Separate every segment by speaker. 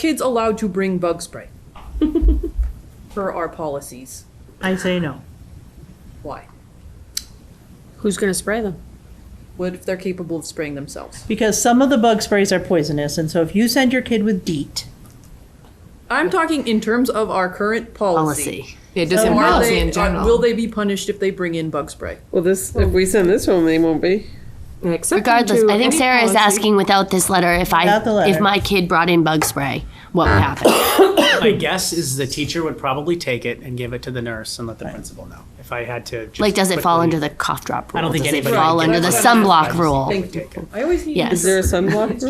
Speaker 1: kids allowed to bring bug spray? Per our policies.
Speaker 2: I say no.
Speaker 1: Why?
Speaker 3: Who's going to spray them?
Speaker 1: What if they're capable of spraying themselves?
Speaker 2: Because some of the bug sprays are poisonous, and so if you send your kid with DEET,
Speaker 1: I'm talking in terms of our current policy.
Speaker 4: policy. Yeah, just
Speaker 1: So
Speaker 4: in
Speaker 1: are
Speaker 4: policy
Speaker 1: they-
Speaker 4: in
Speaker 1: are-
Speaker 4: general.
Speaker 1: Will they be punished if they bring in bug spray?
Speaker 5: Well, this, if we send this one, they won't be.
Speaker 4: Regardless,
Speaker 3: to
Speaker 4: I think
Speaker 3: any
Speaker 4: Sarah is
Speaker 3: policy.
Speaker 4: asking without this letter if I
Speaker 2: Without the letter.
Speaker 4: if my kid brought in bug spray, what would happen?
Speaker 6: My guess is the teacher would probably take it and give it to the nurse and let the principal know. If I had to, just
Speaker 4: like, does it fall
Speaker 6: quickly-
Speaker 4: under the cough drop rule?
Speaker 6: I don't think
Speaker 4: does
Speaker 6: anybody
Speaker 4: it fall
Speaker 6: would
Speaker 4: under the
Speaker 6: get it.
Speaker 4: sunblock rule?
Speaker 6: Would take it.
Speaker 1: I always need.
Speaker 4: Yes.
Speaker 5: Is there a sunblock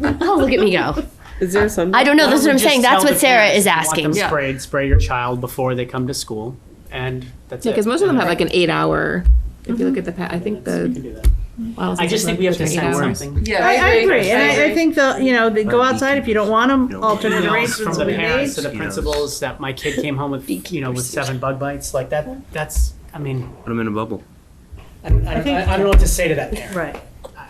Speaker 5: rule?
Speaker 4: Oh, look at me go.
Speaker 5: Is there a sunblock?
Speaker 4: I don't know. That's what I'm
Speaker 6: Just
Speaker 4: saying.
Speaker 6: tell
Speaker 4: That's
Speaker 6: the
Speaker 4: what Sarah
Speaker 6: parents
Speaker 4: is
Speaker 6: you want
Speaker 4: asking.
Speaker 6: them
Speaker 1: Yeah.
Speaker 6: sprayed. Spray your child before they come to school, and that's it.
Speaker 7: Because most of them
Speaker 6: And
Speaker 7: have like an eight hour. If
Speaker 2: Mm-hmm.
Speaker 7: you look at the, pa- I think
Speaker 6: You
Speaker 7: the.
Speaker 6: can do that. I just think we have to send something.
Speaker 1: Yeah,
Speaker 2: I, I agree, and I, I think the you know they go outside if you don't want them. Alternate
Speaker 6: Emails
Speaker 2: arrangements
Speaker 6: from
Speaker 2: will
Speaker 6: the
Speaker 2: be made.
Speaker 6: parents to the principals that my kid came home with, you know, with seven bug bites. Like that. That's. I mean,
Speaker 8: Put them in a bubble.
Speaker 6: I, I, I don't know what to say to that parent.
Speaker 2: Right.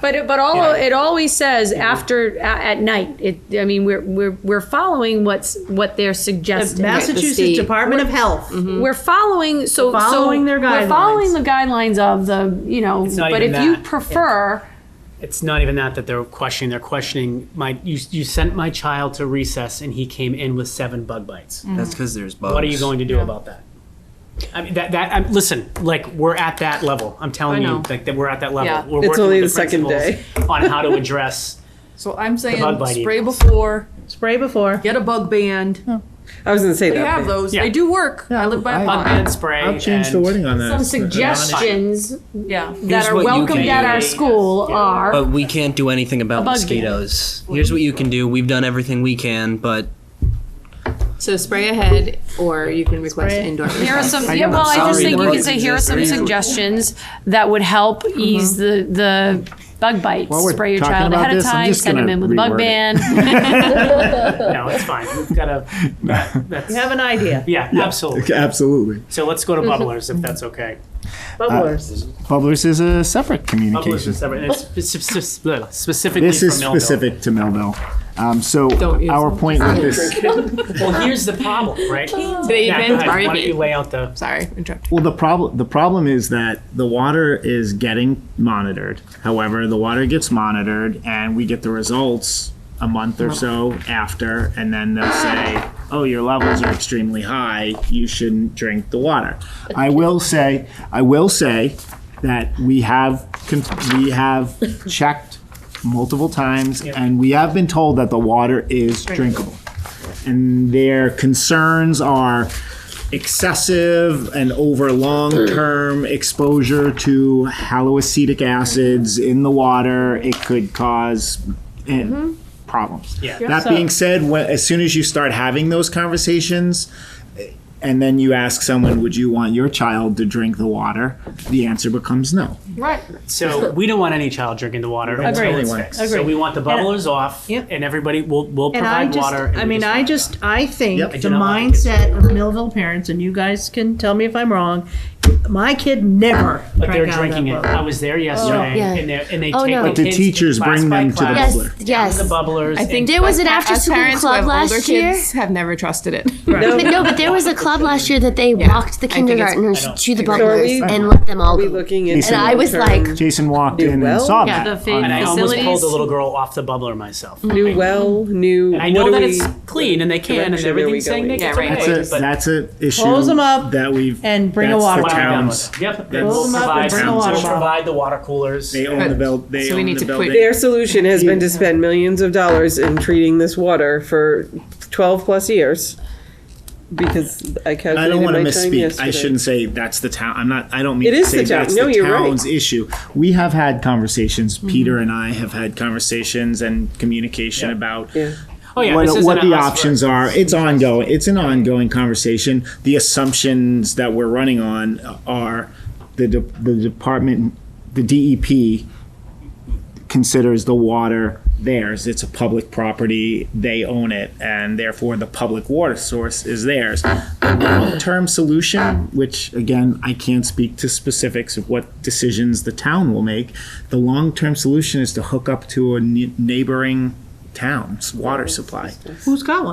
Speaker 3: But it, but all it always says after a- at night. It I mean we're we're we're following what's what they're
Speaker 2: The
Speaker 3: suggesting.
Speaker 2: Massachusetts
Speaker 7: state.
Speaker 2: Department of Health.
Speaker 3: We're following so
Speaker 2: We're following
Speaker 3: so
Speaker 2: their
Speaker 3: We're following
Speaker 2: guidelines.
Speaker 3: the guidelines of the you know.
Speaker 6: not
Speaker 3: But if
Speaker 6: even
Speaker 3: you
Speaker 6: that.
Speaker 3: prefer,
Speaker 6: it's not even that that they're questioning they're questioning my you, you sent my child to recess and he came in with seven bug bites
Speaker 8: That's because there's bugs.
Speaker 6: what are you going to do about that I mean that that I'm, listen like we're at that level I'm telling
Speaker 1: I
Speaker 6: you
Speaker 1: know.
Speaker 6: like that we're at that level
Speaker 1: Yeah.
Speaker 6: we're
Speaker 5: It's
Speaker 6: working
Speaker 5: only
Speaker 6: with
Speaker 5: the second
Speaker 6: principals on how to address
Speaker 1: So I'm
Speaker 6: bug
Speaker 1: saying
Speaker 6: bite
Speaker 1: spray
Speaker 6: emails.
Speaker 1: before,
Speaker 2: Spray before.
Speaker 1: get a bug band.
Speaker 5: I was gonna say
Speaker 1: We
Speaker 5: that.
Speaker 1: have
Speaker 5: but-
Speaker 1: those.
Speaker 6: Yeah.
Speaker 1: They do work. I live by a pond.
Speaker 6: bug band spray
Speaker 9: I'll change the
Speaker 6: and-
Speaker 9: wording on that.
Speaker 3: some
Speaker 9: It's not-
Speaker 3: suggestions
Speaker 1: Yeah.
Speaker 3: that are
Speaker 8: what you
Speaker 3: welcomed
Speaker 8: can
Speaker 3: at
Speaker 8: do.
Speaker 3: our school
Speaker 6: Yeah.
Speaker 3: are.
Speaker 8: But we can't do anything about
Speaker 3: bug
Speaker 8: mosquitoes. Here's what you can do. We've done everything we can, but
Speaker 7: So spray ahead, or you can request indoor.
Speaker 3: Here are some. Yeah, well, I
Speaker 8: I'm
Speaker 3: just
Speaker 8: sorry,
Speaker 3: think
Speaker 8: the
Speaker 3: you could
Speaker 8: bugs
Speaker 3: say here are
Speaker 8: exist.
Speaker 3: some
Speaker 8: They're easy.
Speaker 3: suggestions that would help
Speaker 8: Mm-hmm.
Speaker 3: ease the the bug bites.
Speaker 9: While we're
Speaker 3: Spray your
Speaker 9: talking
Speaker 3: child
Speaker 9: about
Speaker 3: ahead of
Speaker 9: this, I'm
Speaker 3: time.
Speaker 9: just
Speaker 3: Send them
Speaker 9: gonna
Speaker 3: in with a bug
Speaker 9: reword it.
Speaker 3: band.
Speaker 6: no it's fine we've got to that's
Speaker 2: You have an idea.
Speaker 6: yeah, absolutely
Speaker 9: Okay, Absolutely.
Speaker 6: so let's go to
Speaker 1: Mm-hmm.
Speaker 6: bubblers if that's okay
Speaker 2: Bubblers.
Speaker 9: Bubblers is a separate
Speaker 6: bubblers
Speaker 9: communication.
Speaker 6: is separate and it's spe- spe- spe- specifically
Speaker 9: This is
Speaker 6: for Millville.
Speaker 9: specific to Millville. Um, so our point with this,
Speaker 6: well here's the problem right
Speaker 7: Today
Speaker 6: Yeah, go
Speaker 7: event,
Speaker 6: ahead. why don't you
Speaker 7: sorry,
Speaker 6: lay out the
Speaker 7: sorry, interrupted.
Speaker 9: well, the problem, the problem is that the water is getting monitored. However, the water gets monitored and we get the results a month or so after, and then they'll say, oh, your levels are extremely high. You shouldn't drink the water. I will say, I will say that we have, con- we have checked multiple times and we have been told that the water is drinkable. And their concerns are excessive and over long-term exposure to haloacetic acids in the water, it could cause eh, problems.
Speaker 6: Yeah.
Speaker 9: That being said, when, as soon as you start having those conversations, eh, and then you ask someone, "Would you want your child to drink the water?" The answer becomes no.
Speaker 6: So we don't want any child drinking the water until
Speaker 9: Agreed.
Speaker 6: it's fixed. So
Speaker 2: Agreed.
Speaker 6: we want the bubblers off,
Speaker 2: Yep.
Speaker 6: and everybody will will
Speaker 2: And I
Speaker 6: provide
Speaker 2: just,
Speaker 6: water. and
Speaker 2: I
Speaker 6: we
Speaker 2: mean,
Speaker 6: just
Speaker 2: I
Speaker 6: want
Speaker 2: just, I
Speaker 9: Yep.
Speaker 2: think
Speaker 6: I
Speaker 2: the
Speaker 6: do not like it.
Speaker 2: mindset of Millville parents, and you guys can tell me if I'm wrong, my kid never
Speaker 6: that. But they're
Speaker 2: drank out of Oh, that
Speaker 6: drinking it.
Speaker 2: bottle.
Speaker 6: I was there yesterday,
Speaker 4: Yeah.
Speaker 6: and, they're, and they
Speaker 4: Oh,
Speaker 6: take
Speaker 4: no.
Speaker 6: the
Speaker 7: But
Speaker 9: the
Speaker 6: kids
Speaker 9: teachers
Speaker 6: class
Speaker 9: bring
Speaker 6: by
Speaker 9: them to the
Speaker 6: class,
Speaker 9: bubbler.
Speaker 6: The
Speaker 4: Yes.
Speaker 6: bubblers.
Speaker 7: I think
Speaker 4: There was an
Speaker 7: as-
Speaker 4: after
Speaker 7: as
Speaker 4: school
Speaker 7: parents who
Speaker 4: club
Speaker 7: have
Speaker 4: last
Speaker 7: older
Speaker 4: year.
Speaker 7: Kids have never trusted it.
Speaker 4: But no, but there was a club last year that they walked the
Speaker 7: I think it's-
Speaker 4: kindergartners
Speaker 6: I don't-
Speaker 4: to the
Speaker 5: So are
Speaker 4: bubblers
Speaker 5: we-
Speaker 4: and let them all
Speaker 5: Are we
Speaker 4: go.
Speaker 5: looking into?
Speaker 4: And I was like,
Speaker 5: long-term-
Speaker 9: Jason walked in
Speaker 5: well?
Speaker 9: and saw
Speaker 3: Yeah,
Speaker 9: that.
Speaker 3: the
Speaker 9: on
Speaker 6: and I almost pulled
Speaker 3: facilities.
Speaker 6: the little girl off the bubbler myself.
Speaker 5: New well, new.
Speaker 6: I know
Speaker 5: what
Speaker 6: that
Speaker 5: do
Speaker 6: it's
Speaker 5: we-
Speaker 6: clean, and they can, and
Speaker 5: direction are we
Speaker 6: everything's saying they
Speaker 5: going?
Speaker 6: can.
Speaker 7: Yeah, right.
Speaker 9: That's a, that's a issue.
Speaker 2: Close 'em up
Speaker 9: That we've.
Speaker 2: and bring a
Speaker 9: that's
Speaker 2: water
Speaker 9: The
Speaker 2: bottle.
Speaker 9: towns.
Speaker 6: Yep,
Speaker 9: That's-
Speaker 6: we'll
Speaker 9: Close 'em up
Speaker 6: provide,
Speaker 9: and bring a water
Speaker 6: we'll
Speaker 9: bottle.
Speaker 6: provide the water coolers.
Speaker 9: They own the build, they
Speaker 7: So we
Speaker 9: own
Speaker 7: need
Speaker 9: the
Speaker 7: to put-
Speaker 9: building.
Speaker 5: Their solution has been to spend millions of dollars in treating this water for twelve plus years. Because I
Speaker 9: I
Speaker 5: calculated
Speaker 9: don't want to
Speaker 5: my time
Speaker 9: misspeak. I
Speaker 5: yesterday.
Speaker 9: shouldn't say that's the town. I'm not. I don't mean
Speaker 5: It
Speaker 9: to
Speaker 5: is
Speaker 9: say
Speaker 5: the town.
Speaker 9: that's
Speaker 5: No,
Speaker 9: the
Speaker 5: you're right.
Speaker 9: town's issue. We have had conversations. Peter
Speaker 7: Mm-hmm.
Speaker 9: and I have had conversations and communication about
Speaker 5: Yeah.
Speaker 6: Oh yeah, this
Speaker 9: what,
Speaker 6: isn't
Speaker 9: what
Speaker 6: a
Speaker 9: the
Speaker 6: us
Speaker 9: options
Speaker 6: versus-
Speaker 9: are. It's ongoing. It's an ongoing conversation. The assumptions that we're running on are the de- the department, the DEP considers the water theirs. It's a public property. They own it, and therefore the public water source is theirs. The long-term solution, which again I can't speak to specifics of what decisions the town will make, the long-term solution is to hook up to a ne- neighboring town's water supply.
Speaker 2: Who's got one?